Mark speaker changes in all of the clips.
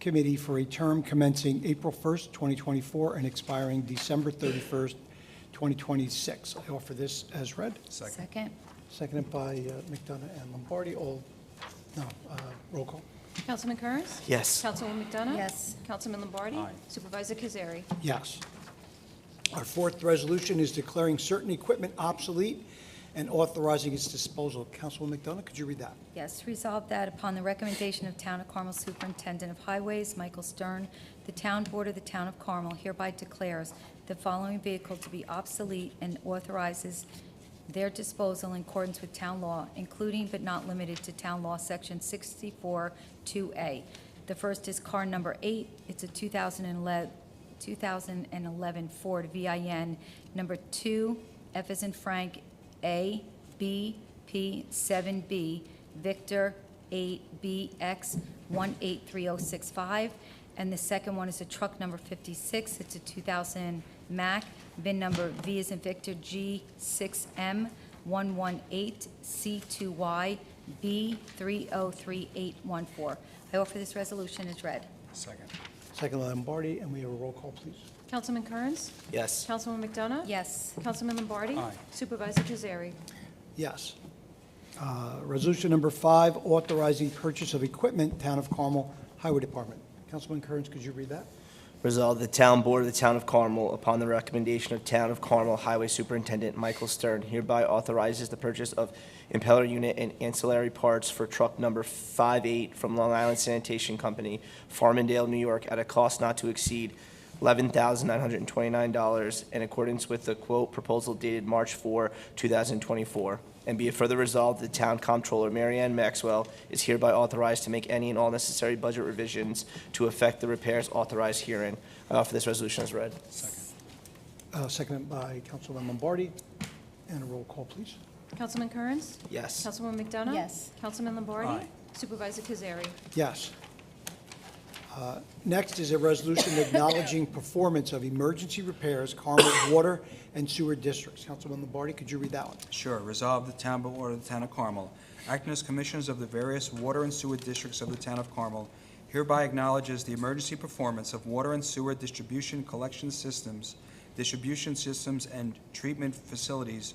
Speaker 1: Committee for a term commencing April 1st, 2024, and expiring December 31st, 2026. I offer this as read,
Speaker 2: Second.
Speaker 3: Second.
Speaker 1: seconded by uh, McDonough and Lombardi. All, no, uh, roll call.
Speaker 4: Councilman Kearns?
Speaker 5: Yes.
Speaker 4: Councilwoman McDonough?
Speaker 3: Yes.
Speaker 4: Councilman Lombardi? Supervisor Kazari?
Speaker 1: Yes. Our fourth resolution is declaring certain equipment obsolete and authorizing its disposal. Councilwoman McDonough, could you read that?
Speaker 3: Yes, resolved that upon the recommendation of Town of Carmel Superintendent of Highways, Michael Stern, the Town Board of the Town of Carmel hereby declares the following vehicle to be obsolete and authorizes their disposal in accordance with town law, including but not limited to Town Law Section 64-2A. The first is car number eight. It's a 2011 2011 Ford VIN number two, F as in Frank, A, B, P, 7B, Victor, 8BX, 183065. And the second one is a truck number 56. It's a 2000 Mack, VIN number V as in Victor, G6M118C2YB303814. I offer this resolution as read.
Speaker 2: Second.
Speaker 1: Seconded by Lombardi, and we have a roll call, please.
Speaker 4: Councilman Kearns?
Speaker 5: Yes.
Speaker 4: Councilwoman McDonough?
Speaker 3: Yes.
Speaker 4: Councilman Lombardi?
Speaker 2: Aye.
Speaker 4: Supervisor Kazari?
Speaker 1: Yes. Uh, Resolution number five, authorizing purchase of equipment, Town of Carmel Highway Department. Councilman Kearns, could you read that?
Speaker 5: Resolved, the Town Board of the Town of Carmel, upon the recommendation of Town of Carmel Highway Superintendent Michael Stern, hereby authorizes the purchase of impeller unit and ancillary parts for truck number 58 from Long Island Sanitation Company, Farmingdale, New York, at a cost not to exceed $11,929 in accordance with the quote proposal dated March 4, 2024. And be it further resolved, the town comptroller, Mary Ann Maxwell, is hereby authorized to make any and all necessary budget revisions to effect the repairs authorized herein. I offer this resolution as read.
Speaker 1: Uh, Seconded by Councilman Lombardi, and a roll call, please.
Speaker 4: Councilman Kearns?
Speaker 5: Yes.
Speaker 4: Councilwoman McDonough?
Speaker 3: Yes.
Speaker 4: Councilman Lombardi?
Speaker 2: Aye.
Speaker 4: Supervisor Kazari?
Speaker 1: Yes. Uh, Next is a resolution acknowledging performance of emergency repairs, Carmel Water and Sewer Districts. Councilman Lombardi, could you read that one?
Speaker 2: Sure. Resolve the Town Board of the Town of Carmel, acting as commissioners of the various water and sewer districts of the Town of Carmel, hereby acknowledges the emergency performance of water and sewer distribution collection systems, distribution systems, and treatment facilities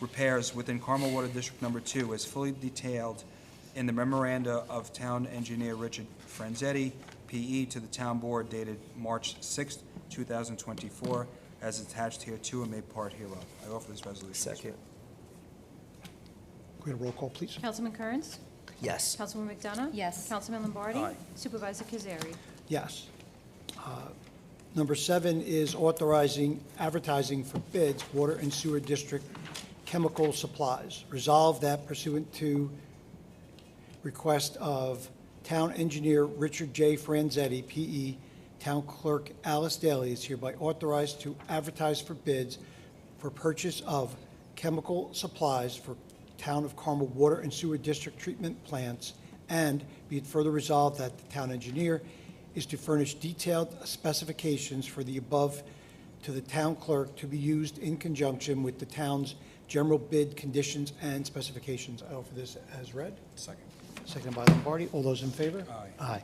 Speaker 2: repairs within Carmel Water District Number Two as fully detailed in the memoranda of Town Engineer Richard Franzetti, PE, to the Town Board dated March 6, 2024, as attached here to and made part hereof. I offer this resolution. as
Speaker 5: Second.
Speaker 1: Could we have a roll call, please?
Speaker 4: Councilman Kearns?
Speaker 5: Yes.
Speaker 4: Councilwoman McDonough?
Speaker 3: Yes.
Speaker 4: Councilman Lombardi?
Speaker 2: Aye.
Speaker 4: Supervisor Kazari?
Speaker 1: Yes. Uh, Number seven is authorizing advertising for bids, water and sewer district chemical supplies. Resolve that pursuant to request of Town Engineer Richard J. Franzetti, P.E., Town Clerk Alice Daly is hereby authorized to advertise for bids for purchase of chemical supplies for Town of Carmel Water and Sewer District Treatment Plants, and be it further resolved that the town engineer is to furnish detailed specifications for the above to the town clerk to be used in conjunction with the town's general bid conditions and specifications. I offer this as read.
Speaker 2: Second.
Speaker 1: Seconded by Lombardi. All those in favor?
Speaker 2: Aye.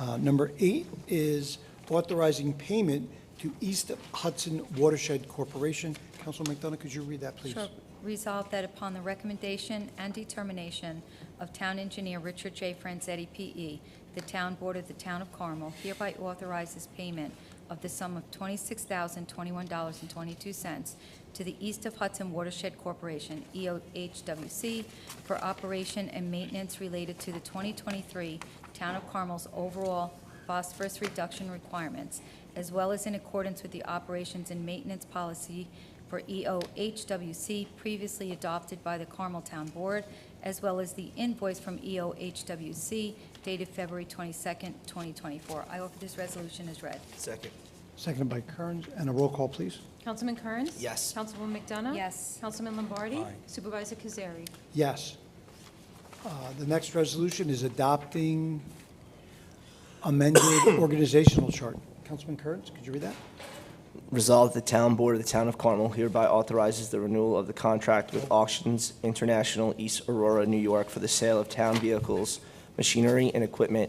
Speaker 1: Aye. Uh, Number eight is authorizing payment to East Hudson Watershed Corporation. Councilman McDonough, could you read that, please?
Speaker 3: Sure. Resolved that upon the recommendation and determination of Town Engineer Richard J. Franzetti, P.E., the Town Board of the Town of Carmel hereby authorizes payment of the sum of $26,021.22 to the East of Hudson Watershed Corporation, E EOHWC, for operation and maintenance related to the 2023 Town of Carmel's overall phosphorus reduction requirements, as well as in accordance with the operations and maintenance policy for E EOHWC previously adopted by the Carmel Town Board, as well as the invoice from E EOHWC dated February 22nd, 2024. I offer this resolution as read.
Speaker 5: Second.
Speaker 1: Seconded by Kearns. And a roll call, please.
Speaker 4: Councilman Kearns?
Speaker 5: Yes.
Speaker 4: Councilwoman McDonough?
Speaker 3: Yes.
Speaker 4: Councilman Lombardi?
Speaker 2: Aye.
Speaker 4: Supervisor Kazari?
Speaker 1: Yes. Uh, The next resolution is adopting amended organizational chart. Councilman Kearns, could you read that?
Speaker 5: Resolved, the Town Board of the Town of Carmel hereby authorizes the renewal of the contract with Auctions International East Aurora, New York, for the sale of town vehicles, machinery, and equipment